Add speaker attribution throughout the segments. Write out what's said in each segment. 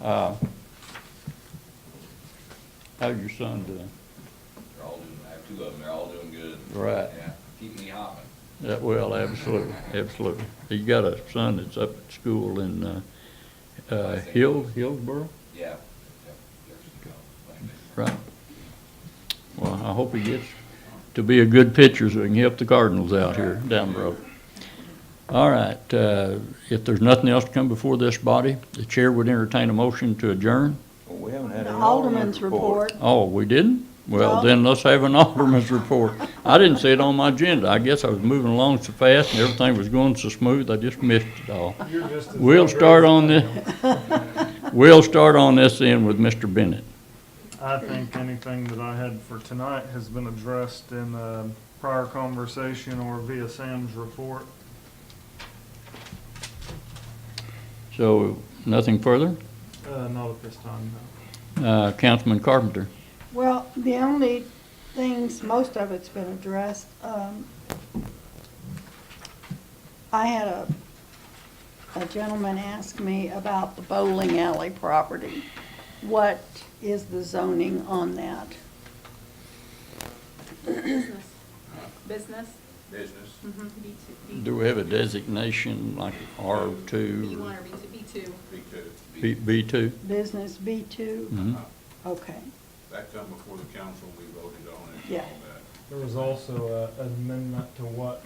Speaker 1: Uh, How's your son doing?
Speaker 2: They're all doing, I have two of them, they're all doing good.
Speaker 1: Right.
Speaker 2: Yeah, keep me hopping.
Speaker 1: Yeah, well, absolutely, absolutely. You got a son that's up at school in, uh, uh, Hill, Hillsborough,
Speaker 2: Yeah. Yep, there's the go. Thank you.
Speaker 1: right? Well, I hope he gets to be a good pitcher so he can help the Cardinals out here down the road. All right, uh, if there's nothing else to come before this body, the chair would entertain a motion to adjourn.
Speaker 3: Well, We haven't had
Speaker 4: The
Speaker 3: an
Speaker 4: Alderman's report.
Speaker 1: Oh, we didn't? Well,
Speaker 4: No.
Speaker 1: then let's have an alderman's report. I didn't see it on my agenda. I guess I was moving along so fast and everything was going so smooth, I just missed it all. We'll start on this, we'll start on this end with Mr. Bennett.
Speaker 5: I think anything that I had for tonight has been addressed in the prior conversation or via Sam's report.
Speaker 1: So, nothing further?
Speaker 5: Uh, not at this time, no.
Speaker 1: Uh, Councilman Carpenter?
Speaker 4: Well, the only things, most of it's been addressed. Um, I had a, a gentleman ask me about the bowling alley property. What is the zoning on that?
Speaker 6: Business. Business?
Speaker 2: Business,
Speaker 6: Mm-hmm. B two.
Speaker 1: Do we have a designation like
Speaker 6: B
Speaker 1: R2
Speaker 6: one or B two, B two.
Speaker 2: big two.
Speaker 1: or B2?
Speaker 4: Business B2?
Speaker 1: Mhm.
Speaker 4: Okay,
Speaker 2: That come before the council, we voted on
Speaker 4: and Yeah. all
Speaker 5: There was also a- an amendment to what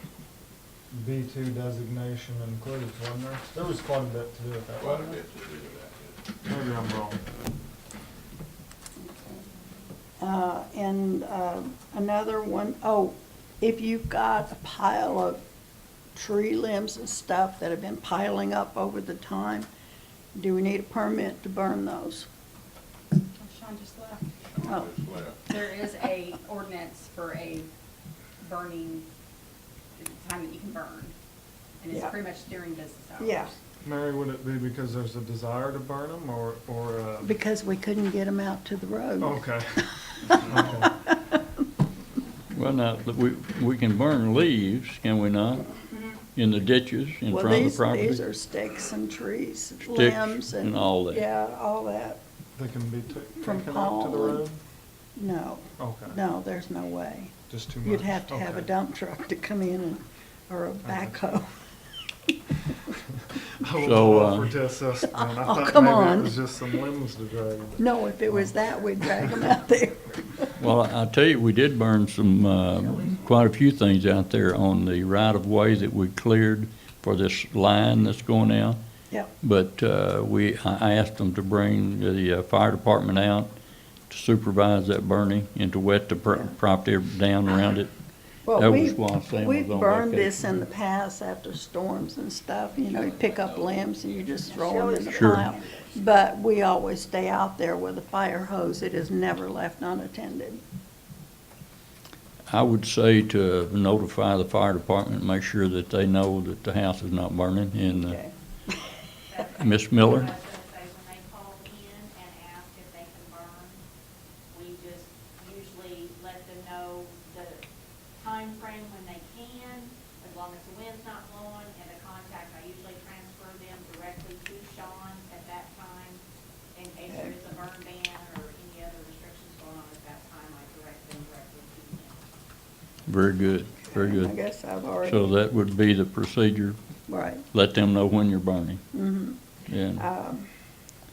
Speaker 5: B2 designation includes, wasn't there? There was quite a bit to do with that, wasn't there?
Speaker 2: to do with that.
Speaker 5: Maybe I'm wrong.
Speaker 4: Uh, And uh, another one, oh, if you've got a pile of tree limbs and stuff that have been piling up over the time, do we need a permit to burn those?
Speaker 6: Sean just left.
Speaker 4: Oh,
Speaker 7: There is a ordinance for a burning, time that you can burn, and it's
Speaker 4: Yeah.
Speaker 7: pretty much during business hours.
Speaker 4: Yeah,
Speaker 5: Mary, would it be because there's a desire to burn them or, or, uh,
Speaker 4: because we couldn't get them out to the road.
Speaker 5: Oh, okay. Okay.
Speaker 1: Well, now, we, we can burn leaves, can we not? In the ditches in
Speaker 4: Well,
Speaker 1: front of the
Speaker 4: these,
Speaker 1: property?
Speaker 4: these are sticks and trees,
Speaker 1: Sticks
Speaker 4: limbs and.
Speaker 1: and all that.
Speaker 4: Yeah, all that.
Speaker 5: They can be ta-
Speaker 4: From
Speaker 5: taken out to the
Speaker 4: Paul and-
Speaker 5: road?
Speaker 4: No,
Speaker 5: Okay,
Speaker 4: no, there's no way.
Speaker 5: just too much.
Speaker 4: You'd have to have a
Speaker 5: Okay.
Speaker 4: dump truck to come in and, or a backhoe.
Speaker 5: I was
Speaker 1: So, uh,
Speaker 5: offered to assist, and I
Speaker 4: Oh,
Speaker 5: thought
Speaker 4: come
Speaker 5: maybe
Speaker 4: on.
Speaker 5: it was just some limbs to drag. but-
Speaker 4: No, if it was that, we'd drag them out there.
Speaker 1: Well, I I tell you, we did burn some, uh, quite a few things out there on the right-of-way that we cleared for this line that's going out.
Speaker 4: Yep.
Speaker 1: But uh, we, I I asked them to bring the uh, fire department out to supervise that burning and to wet the pro-
Speaker 4: Yeah.
Speaker 1: property down around it. That
Speaker 4: Well,
Speaker 1: was
Speaker 4: we,
Speaker 1: why Sam was on
Speaker 4: we've burned
Speaker 1: vacation.
Speaker 4: this in the past after storms and stuff, you know, you pick up limbs and you just throw them in the
Speaker 1: Sure.
Speaker 4: pile. But we always stay out there with a fire hose, it is never left unattended.
Speaker 1: I would say to notify the fire department, make sure that they know that the house is not burning. And uh,
Speaker 4: Okay.
Speaker 1: Ms. Miller?
Speaker 8: I was gonna say, when they call in and ask if they can burn, we just usually let them know the time frame when they can, as long as the wind's not blowing, and the contact, I usually transfer them directly to Sean at that time, in case there is a burn ban or any other restrictions going on at that time, I direct them directly to him.
Speaker 1: Very good, very
Speaker 4: I
Speaker 1: good.
Speaker 4: guess I've already,
Speaker 1: So that would be the procedure,
Speaker 4: right,
Speaker 1: let them know when you're burning.
Speaker 4: hmm
Speaker 1: And
Speaker 4: Um,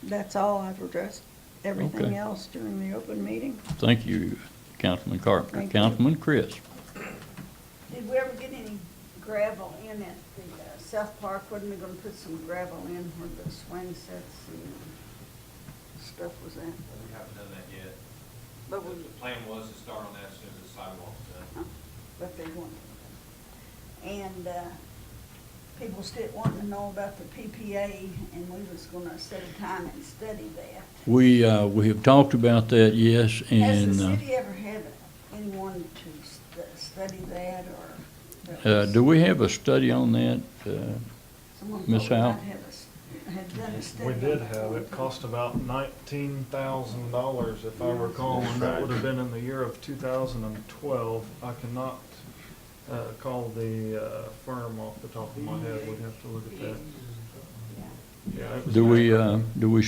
Speaker 4: that's all I've addressed. Everything
Speaker 1: Okay.
Speaker 4: else during the open meeting.
Speaker 1: Thank you, Councilman Carpenter.
Speaker 4: Thank you.
Speaker 1: Councilman Chris?
Speaker 9: Did we ever get any gravel in at the uh, South Park? Wasn't we gonna put some gravel in where the swing sets and stuff was at?
Speaker 10: We haven't done that yet. The
Speaker 9: But we, Uh-huh.
Speaker 10: the plan was to start on that as soon as the sidewalk's done.
Speaker 9: but they weren't. And, uh, people still wanting to know about the PPA and we was gonna set a time and study that.
Speaker 1: We, uh, we have talked about that, yes,
Speaker 9: Has
Speaker 1: and,
Speaker 9: the
Speaker 1: uh,
Speaker 9: city ever had anyone to st- study that or? that
Speaker 1: uh,
Speaker 9: was-
Speaker 1: do we have a study on that? Uh,
Speaker 9: Someone
Speaker 1: Miss
Speaker 9: thought we
Speaker 1: Howe?
Speaker 9: might have a s- Had done a study.
Speaker 5: We did
Speaker 9: on that
Speaker 5: have,
Speaker 9: one
Speaker 5: it
Speaker 9: time.
Speaker 5: cost about nineteen thousand dollars if I recall, and that would have been in the year of two thousand and twelve. I cannot, uh, call the, uh, firm off the top of my head, we'd have to look at that.
Speaker 9: Yeah.
Speaker 5: Yeah, it was
Speaker 1: Do we,
Speaker 5: back-
Speaker 1: uh, do we